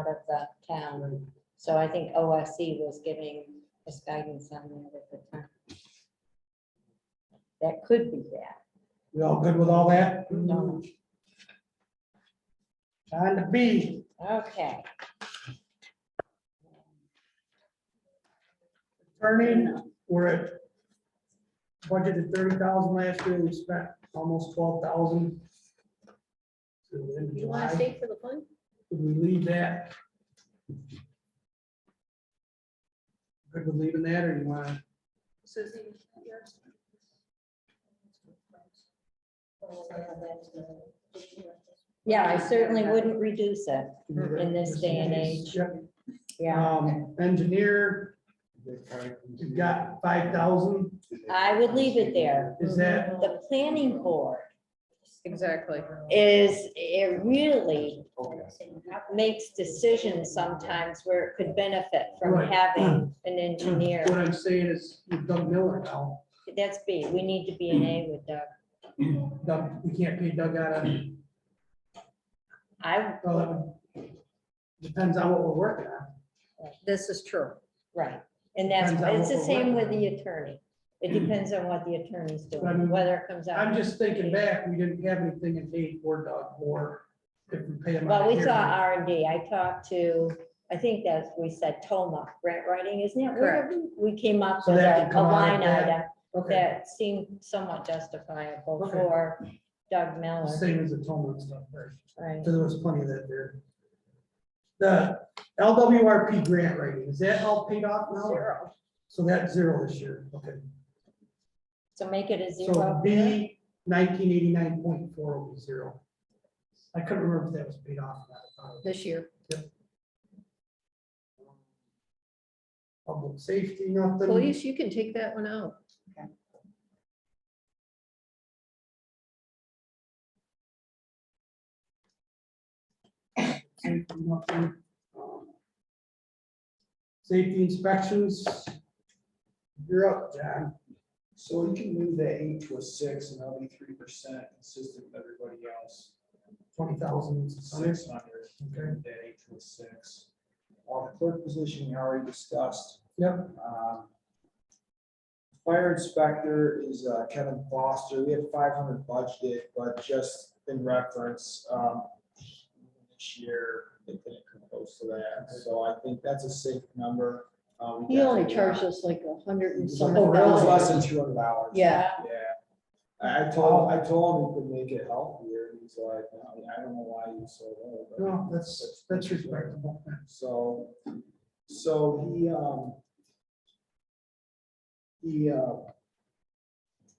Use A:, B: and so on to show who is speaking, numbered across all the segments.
A: of the town. So I think OSC was giving us guidance on that at the time. That could be that.
B: We all good with all that?
A: No.
B: On to B,
A: Okay.
B: turning, we're at budgeted thirty thousand last year, we spent almost twelve thousand.
C: You want to stay for the fun?
B: Would we leave that? Good with leaving that, or you wanna,
C: Susie?
A: Yeah, I certainly wouldn't reduce it. In this day and age.
B: Yep.
A: Yeah.
B: Um, engineer, you've got five thousand,
A: I would leave it there.
B: is that,
A: The planning board
C: Exactly.
A: is, it really makes decisions sometimes where it could benefit from
B: Right.
A: having an engineer.
B: what I'm saying is, with Doug Miller now,
A: That's B. We need to be an A with Doug.
B: Doug, we can't pay Doug out of,
A: I,
B: well, that would- depends on what we're working on.
C: This is true.
A: right. And that's,
B: Depends on
A: it's the
B: what
A: same
B: we're
A: with the attorney. It depends on what the attorney's
B: But I
A: doing,
B: mean,
A: whether it comes out.
B: I'm just thinking back, we didn't have anything in paid for Doug, or if we pay him. out
A: Well, we
B: here.
A: saw R and D. I talked to, I think that's, we said Toma, grant writing, isn't it? Where We came up
B: So
A: with
B: that
A: a
B: would
A: a
B: come out of
A: line
B: that?
A: item
B: Okay,
A: that seemed somewhat justifiable
B: Okay.
A: for Doug Miller,
B: same as the Tolman stuff, right?
A: right?
B: So there was plenty of that there. The LWRP grant rating, is that all paid off now?
C: Zero.
B: So that's zero this year, okay.
A: So make it a
B: So
A: zero.
B: B nineteen eighty-nine point four will be zero. I couldn't remember if that was paid off. or not.
C: This year.
B: Public safety, nothing.
C: Police, you can take that one out.
B: safety, nothing. Um, Safety inspections. You're up, John.
D: So you can move that eight to a six and that'll be three percent consistent with everybody else.
B: Twenty thousand
D: Six hundred,
B: Okay.
D: move that eight to a six. Uh, the clerk position we already discussed.
B: Yep.
D: Um, Fire inspector is uh, Kevin Foster. We had five hundred budgeted, but just in reference, um, this year, they didn't come close to that. So I think that's a safe number. Uh, we
E: He only
D: definitely-
E: charged us like a hundred and
D: It's like-
E: some
B: Oh,
D: It
B: really?
D: was less
E: dollars.
D: than two hundred dollars.
E: Yeah,
D: Yeah, I I told, I told him we could make it healthier, and he's like, no, I don't know why you so low. but-
B: No, that's, that's respectable.
D: So, so he, um, he, uh,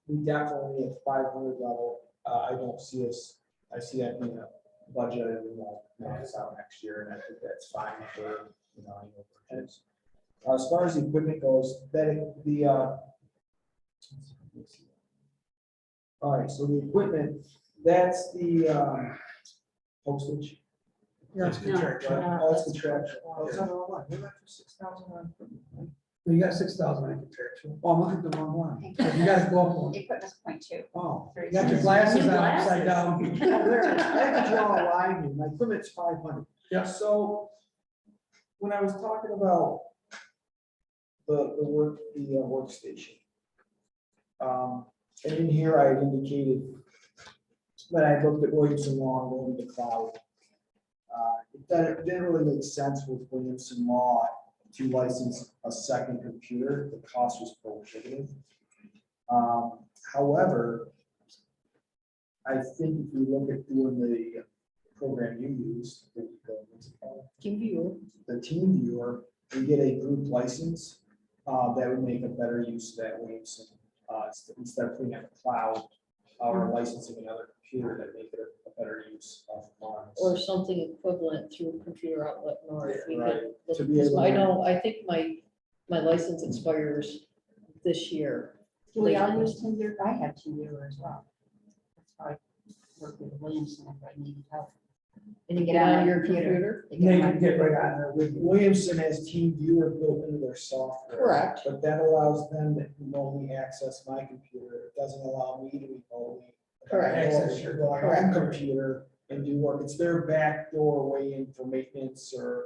D: we definitely at five hundred level, uh, I don't see us, I see that being a budget, and we won't max out next year, and I think that's fine for, you know, annual purchase. As far as the equipment goes, that, it- the, uh, all right, so the equipment, that's the, um, postage.
B: That's contractual.
D: Right, Oh, it's contractual.
B: Oh, it's
D: on the line, we for six thousand on.
B: You got six thousand in contractual.
D: Oh, I'm looking at the wrong one.
B: You gotta go up one.
F: Equipment's point two.
D: Oh.
B: You got your glasses on upside down.
D: There, I have to draw a line here, my limit's five hundred.
B: Yeah.
D: So, when I was talking about the, the work, the uh, workstation. Um, and in here I had indicated that I looked at Williamson Law and going to the cloud. Uh, it didn't, it didn't really make sense with Williamson Law to license a second computer, the cost was prohibitive. Um, however, I think if you look at doing the uh, program you use, the, the, what's it called?
E: Team viewer.
D: the team viewer, we get a group license, uh, that would make a better use of that Williamson, uh, inst- instead of putting out the cloud, uh, or licensing another computer that make it a- a better use of funds.
E: or something equivalent through computer outlet north.
D: Yeah,
E: We could
D: right.
E: look-
D: To be able
E: I
D: to-
E: know, I think my, my license expires this year.
F: Do we all use two year? I have two year as well. That's how I worked with Williamson if I needed help.
E: And you
F: Get
E: get
F: on
E: on
F: your
E: your computer.
F: They
B: They
F: get
B: can
F: my-
B: get right on there with
D: With Williamson has team viewer built into their software.
E: Correct.
D: But that allows them to remotely access my computer, it doesn't allow me to remotely.
E: Correct.
D: Access your
B: Correct.
D: computer and do work, it's their backdoor way in for maintenance or